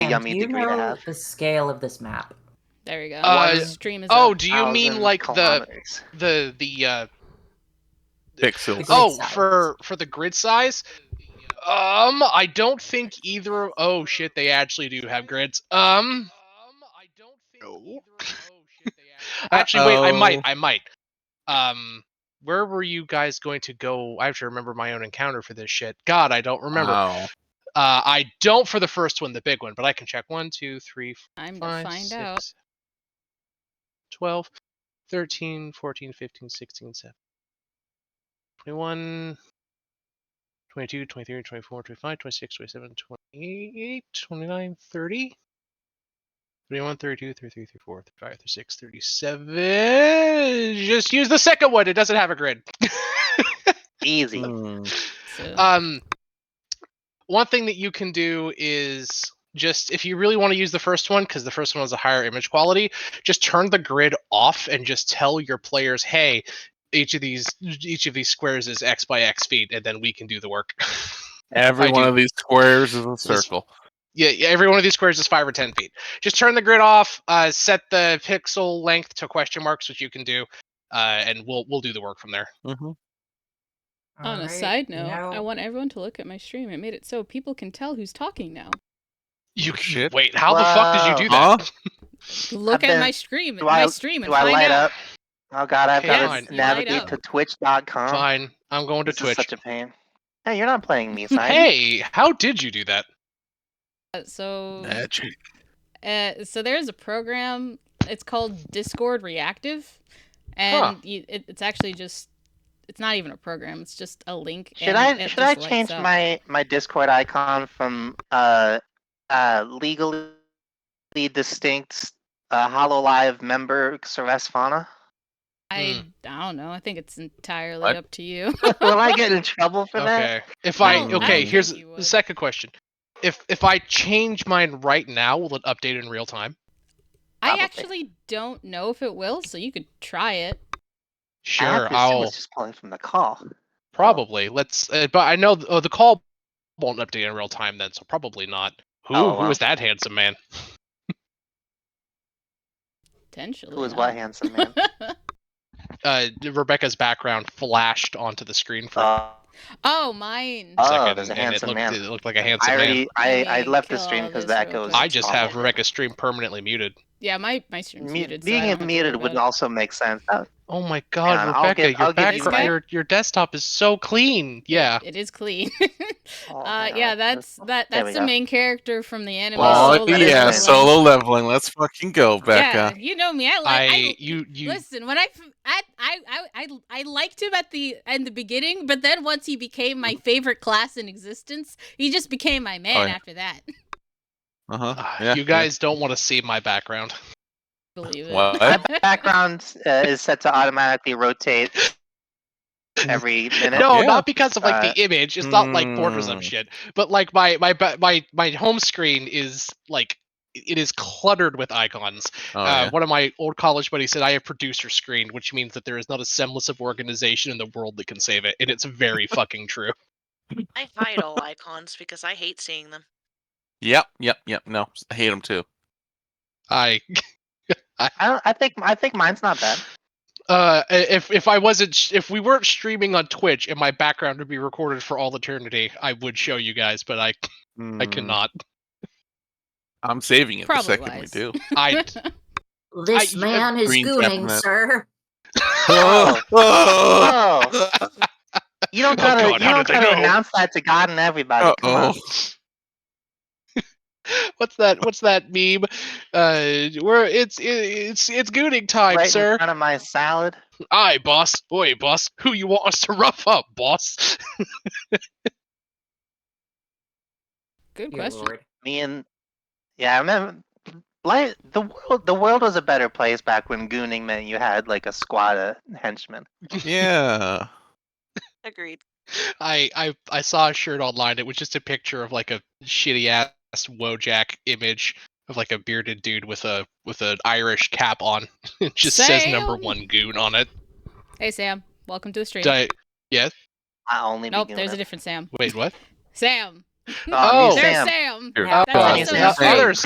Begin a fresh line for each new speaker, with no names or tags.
yummy
Um, do you
degree
know
to have.
the scale of this map?
There we go.
Uh,
Water stream is
oh,
up.
do you mean
1,000
like the
kilometers.
the the uh,
Grid
Pixels.
oh
size.
for for the grid size? Um, I don't think either. of- Oh shit, they actually do have grids. Um, I don't think. Actually, wait, I might,
Uh-oh.
I might. Um, where were you guys going to go? I have to remember my own encounter for this shit. God, I don't remember.
Wow.
Uh, I don't for the first one, the big one, but I can check one, two, three,
Time to
five,
find
six,
out.
12, 13, 14, 15, 16, 17, 21, 22, 23, 24, 25, 26, 27, 28, 29, 30, 31, 32, 33, 34, 35, 36, 37. Just use the second one. It doesn't have a grid.
Easy.
Hmm.
So,
Um, one thing that you can do is just if you really want to use the first one, because the first one has a higher image quality, just turn the grid off and just tell your players, "Hey, each of these each of these squares is X by X feet," and then we can do the work.
Every
I
one
do-
of these squares is a circle.
yeah, yeah, every one of these squares is five or ten feet. Just turn the grid off. Uh, set the pixel length to question marks, which you can do, uh, and we'll we'll do the work from there.
Mhm.
on a
Alright,
side
you
note,
know-
I want everyone to look at my stream. It made it so people can tell who's talking now.
You
Shit.
wait. How the fuck did you do that?
Huh?
Look
bet-
at my stream.
do
my
I-
stream and
Do I
find
light
out.
up? Oh god, I've
Yes,
got
you
to
light
navigate
up.
to twitch.com.
Fine, I'm going to
This is
Twitch.
such a pain. Hey, you're not playing me, Simon.
Hey, how did you do that?
Uh, So,
Mm-hmm.
Magic.
uh, so there's a program. It's called Discord Reactive, and you, it, it's actually just. It's not even a program. It's just a link.
Should
and
I
it
should I
just lights
change
up.
my my Discord icon from uh uh legally distinct uh Hololive member Ceres Fauna?
I, I don't know. I think it's entirely
What?
up to you.
Will I get in trouble for that? Oh,
Okay. If I
No, I
okay,
don't
here's
think you
the
would.
second question. If if I change mine right now, will it update in real time?
I
Probably.
actually don't know if it will, so you could try it.
I have
Sure,
to assume
I'll
It's just calling from the call.
probably. Let's. Uh, but I know th- oh, the call won't update in real time then, so probably not. Who
Oh,
who
wow.
is that handsome man?
Potentially.
Who is
not.
what handsome man?
Uh, Rebecca's background flashed onto the screen for a
Uh,
oh, mine.
Oh,
second,
there's a
and
handsome
it looked,
man.
It looked like a handsome
I
man.
already I, I
Okay,
left the
kill
stream
all
because
this
that
real
goes.
quick.
I just have
awful.
Rebecca's stream permanently muted.
yeah, my my stream's
Mu-
muted. so I
being
don't have to worry
muted
about
would
it.
also make sense. Oh,
Oh my God,
on, I'll
Rebecca,
give-
your
I'll give
you
background,
credit.
your your desktop is so clean. Yeah.
It is clean.
oh,
uh,
hang on,
yeah,
this-
that's that.
There
That's
we
the
go.
main character from the anime.
Well,
Oh
Solo
that is
yeah,
Leveling.
nice.
solo leveling. Let's fucking go,
Yeah,
Becca.
you know me. I like.
I,
I,
you you
listen when I, f- I I I I- I liked him at the in the beginning, but then once he became my favorite class in existence, he just became my man
Oh, yeah.
after that.
Uh huh.
Ah,
Yeah.
you guys don't want to see my background.
Believe it.
What?
background uh, is set to automatically rotate every minute.
No,
Yeah.
not because of like
Uh,
the image. It's not like borders of
Mm.
shit. But like my my ba- my my home screen is like it is cluttered with icons.
Oh,
uh,
yeah.
One of my old college buddies said I have producer screen, which means that there is not a semblance of organization in the world that can save it, and it's very fucking true.
I hide all icons because I hate seeing them.
Yep. Yep. Yep. No, I hate them too.
I
I don't. I think. I think mine's not bad.
uh, i- if if I wasn't sh- if we weren't streaming on Twitch and my background would be recorded for all eternity, I would show you guys, but I I
Mm,
cannot.
I'm saving it the
Probably
second we
wise.
do.
I
This
I-
man is
Green
gooning,
cabinet.
sir.
Oh.
oh.
Oh, you don't
Oh,
gotta.
God,
you
how
don't
did they
gotta
know?
announce that to God and everybody. Come on.
Uh-oh.
what's that what's that meme uh where it's it, it's it's gooning time
right
sir
in front of my salad.
aye boss boy boss who you want us to rough up boss
Good
Dear
question.
Lord.
Me and yeah, I remember. Like the world, the world was a better place back when gooning meant you had like a squad of henchmen.
Yeah.
Agreed.
i i i saw a shirt online it was just a picture of like a shitty ass wojack image of like a bearded dude with a with an irish cap on it just says number
Sam.
one goon on it
Hey Sam, welcome to the stream.
Did I-
I only
nope,
be
there's a
gooning.
different Sam.
wait what
Sam.
Oh,
Oh.
new
There's
Sam.
Sam.
Here.
Yeah,
oh
that was
Sam.
so
yeah,
strange.
other